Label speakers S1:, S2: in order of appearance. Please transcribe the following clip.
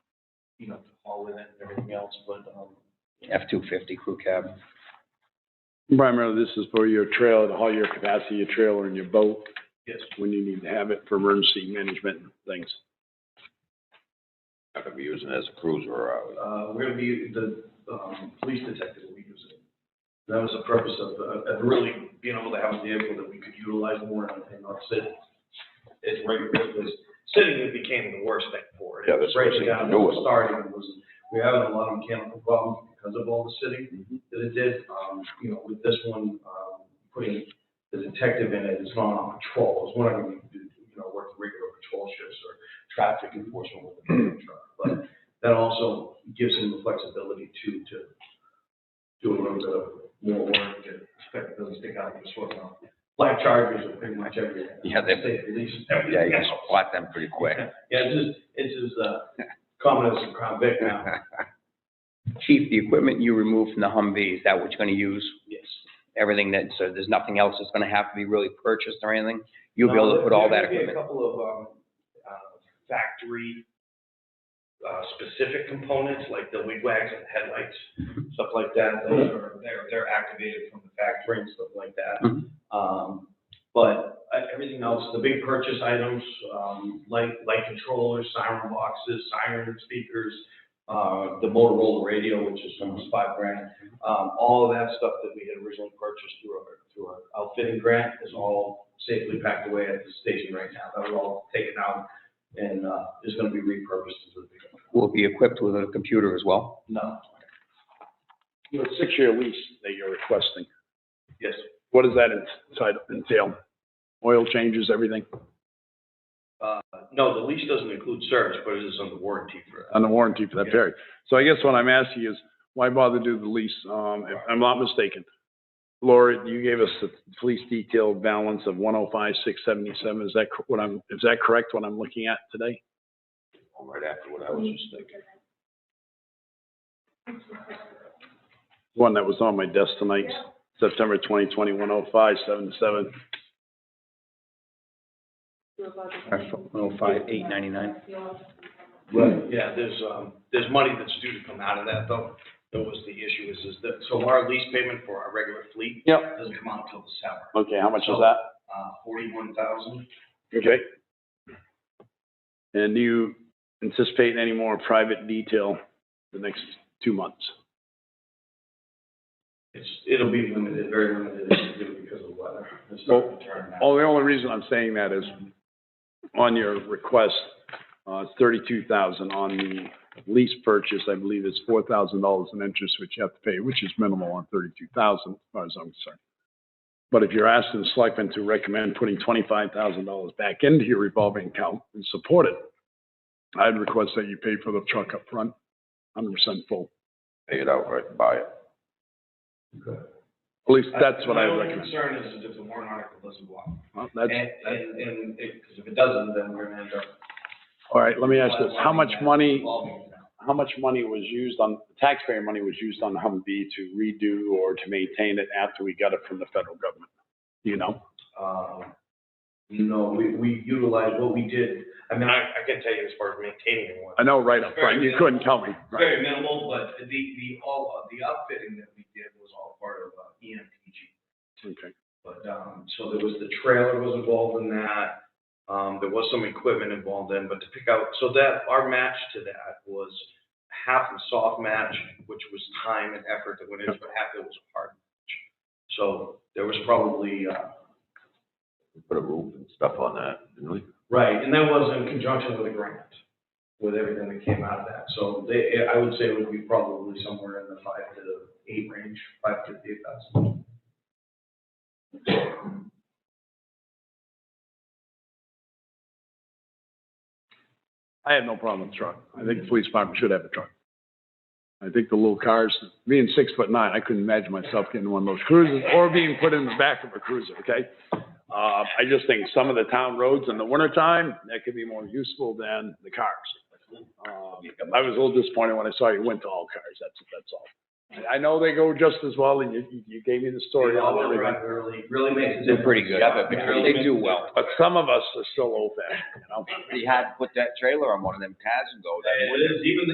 S1: you know, haul in it and everything else, but, um,
S2: F-250 crew cab.
S3: Primarily, this is for your trailer, to haul your capacity, your trailer and your boat
S1: yes,
S3: when you need to have it for emergency management and things.
S4: Not gonna be using it as a cruiser, are we?
S1: uh, we're gonna be, the, um, police detective will be using. it. That was the purpose of, uh, of really being able to have a vehicle that we could utilize more and and not sit. It's right, it was, sitting it became the worst thing for it.
S4: Yeah, that's what
S1: Breaking
S4: we
S1: down,
S4: do with it.
S1: Starting was, we were having a lot of mechanical problems because of all the sitting
S4: Mm-hmm.
S1: that it did. Um, you know, with this one, um, putting the detective in it, it's not on patrol, it's one of them, you know, work regular patrol shifts or traffic enforcement with a pickup truck. But that also gives him the flexibility to, to do a little bit of more work, to expect those to kind of just sort of, black chargers are pretty much everywhere.
S4: Yeah, they-
S1: State police, everything
S4: Yeah, you can
S1: else.
S4: spot them pretty quick.
S1: Yeah, it's just, it's just, uh, common as a crown vic now,
S2: Chief, the equipment you removed from the Humvee, is that what you're going to use?
S1: yes.
S2: Everything that, so there's nothing else that's going to have to be really purchased or anything? You'll be able to put all that
S1: There may be
S2: equipment?
S1: A couple of, um, uh, factory, uh, specific components, like the wig wags and headlights,
S2: Mm-hmm.
S1: stuff like that, those are, they're, they're activated from the factory and stuff like that.
S2: Mhm.
S1: Um, but uh, everything else, the big purchase items, um, light, light controllers, siren boxes, siren speakers, uh, the Motorola radio, which is almost five grand, um, all of that stuff that we had originally purchased through our, through our outfitting grant is all safely packed away at the station right now. That was all taken out and, uh, is gonna be repurposed into the pickup.
S2: Will it be equipped with a computer as well?
S1: No,
S3: You know, six-year lease that you're requesting,
S1: yes,
S3: what does that entitle- entail? Oil changes, everything,
S1: Uh, no, the lease doesn't include service, but it is under warranty for that.
S3: and the warranty for that period. So I guess what I'm asking is, why bother do the lease, um, if I'm not mistaken? Laura, you gave us the police detail balance of one oh five, six seventy-seven, is that cor- what I'm, is that correct, what I'm looking at today?
S4: Right after what I was just thinking.
S3: one that was on my desk tonight, September 2020, 105, 77.
S2: Oh, five, eight ninety-nine?
S1: Right. Yeah, there's, um, there's money that's due to come out of that though. That was the issue is, is that, so our lease payment for our regular fleet
S3: Yep.
S1: doesn't come out until December,
S3: Okay, how much is that?
S1: uh, forty-one thousand.
S3: Okay. And do you anticipate any more private detail the next two months?
S1: It's, it'll be limited, very limited because of weather. It's not gonna turn out.
S3: Oh, the only reason I'm saying that is on your request, uh, it's 32,000 on the lease purchase, I believe it's $4,000 in interest, which you have to pay, which is minimal on 32,000, as far as I'm concerned. But if you're asking the selectmen to recommend putting $25,000 back into your revolving account and support it, I'd request that you pay for the truck up front, 100% full.
S4: Pay it out, right, buy it.
S3: At least that's what I would
S1: My only
S3: recommend.
S1: concern is if the warrant article doesn't work.
S3: Well, That's,
S1: And, and, and, because if it doesn't, then we're gonna end up.
S3: all right, let me ask this, how much money
S1: Revolving account.
S3: how much money was used on, taxpayer money was used on Humvee to redo or to maintain it after we got it from the federal government? Do You know,
S1: Um, No, we, we utilized what we did. I mean, I, I can tell you as far as maintaining one.
S3: I know right up front, you couldn't tell me. right?
S1: Very minimal, but the, the, all, of the outfitting that we did was all part of uh, EMPG.
S3: Okay.
S1: But, um, so there was the trailer was involved in that. Um, there was some equipment involved in, but to pick out, so that, our match to that was half a soft match, which was time and effort that went into it, half it was a hard match. So there was probably, uh,
S4: We Put a roof and stuff on that, didn't we?
S1: Right, and that was in conjunction with a grant, with everything that came out of that. So they, I would say it would be probably somewhere in the five to eight range, five to eight thousand.
S3: I have no problem with the truck. I think the police department should have a truck. I think the little cars, being six foot nine, I couldn't imagine myself getting one of those cruisers or being put in the back of a cruiser, okay? Uh, I just think some of the town roads in the wintertime, that could be more useful than the cars. Um, I was a little disappointed when I saw you went to all cars, that's, that's all. And I know they go just as well, and you, you- you gave me the story on
S1: All-wheel
S3: everything,
S1: drive Really, really makes a difference.
S2: They're pretty good.
S1: Yeah, it really makes
S2: They
S1: a
S2: do well.
S3: but some of us are still old fashioned, you know?
S2: Pretty hard to put that trailer on one of them cars and go that way.
S1: difference. It is, even